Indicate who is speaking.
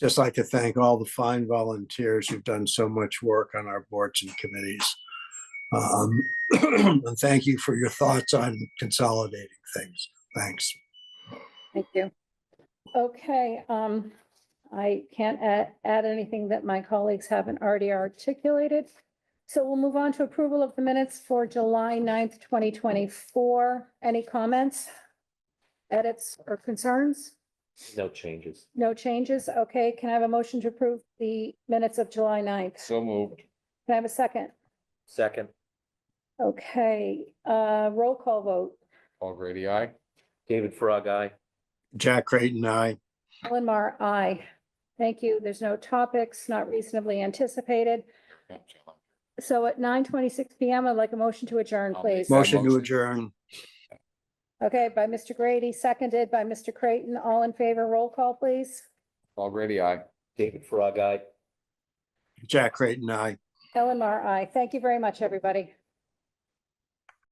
Speaker 1: just like to thank all the fine volunteers who've done so much work on our boards and committees. Um, And thank you for your thoughts on consolidating things. Thanks.
Speaker 2: Thank you.
Speaker 3: Okay, um, I can't add, add anything that my colleagues haven't already articulated. So we'll move on to approval of the minutes for July 9th, twenty twenty-four. Any comments? Edits or concerns?
Speaker 4: No changes.
Speaker 3: No changes? Okay, can I have a motion to approve the minutes of July 9th?
Speaker 5: So moved.
Speaker 3: Can I have a second?
Speaker 4: Second,
Speaker 3: Okay, uh, roll call vote.
Speaker 5: Paul Grady, aye.
Speaker 4: David Frog, aye.
Speaker 1: Jack Creighton, I.
Speaker 3: Ellen Mar, aye. Thank you. There's no topics not reasonably anticipated. So at nine twenty-six PM, I'd like a motion to adjourn,
Speaker 5: I'll make
Speaker 3: please.
Speaker 5: that
Speaker 1: Motion to
Speaker 5: motion.
Speaker 1: adjourn.
Speaker 3: Okay, by Mr. Grady, seconded by Mr. Creighton. All in favor, roll call, please.
Speaker 5: Paul Grady, aye.
Speaker 4: David Frog, aye.
Speaker 1: Jack Creighton, I.
Speaker 3: Ellen Mar, aye. Thank you very much, everybody.